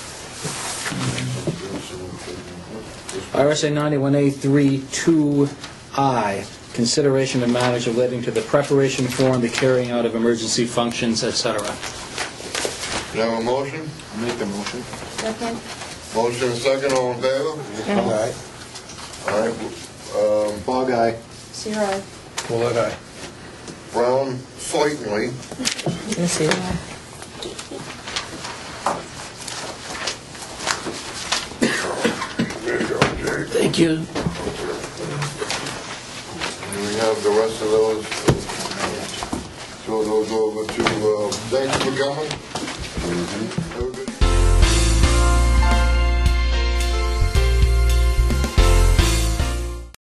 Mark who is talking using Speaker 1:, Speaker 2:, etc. Speaker 1: RSA 91A32I, consideration of matters relating to the preparation for and the carrying out of emergency functions, et cetera.
Speaker 2: Do you have a motion?
Speaker 3: Make the motion.
Speaker 4: Second?
Speaker 2: Motion and second, all in favor?
Speaker 3: Aye.
Speaker 2: All right, um,
Speaker 3: Bog eye.
Speaker 4: Zero.
Speaker 3: Bullet eye.
Speaker 2: Brown, Foytley,
Speaker 5: Thank you.
Speaker 2: and we have the rest of those.
Speaker 5: Mm-hmm.
Speaker 2: Throw those over to, uh, thanks for coming. Have a good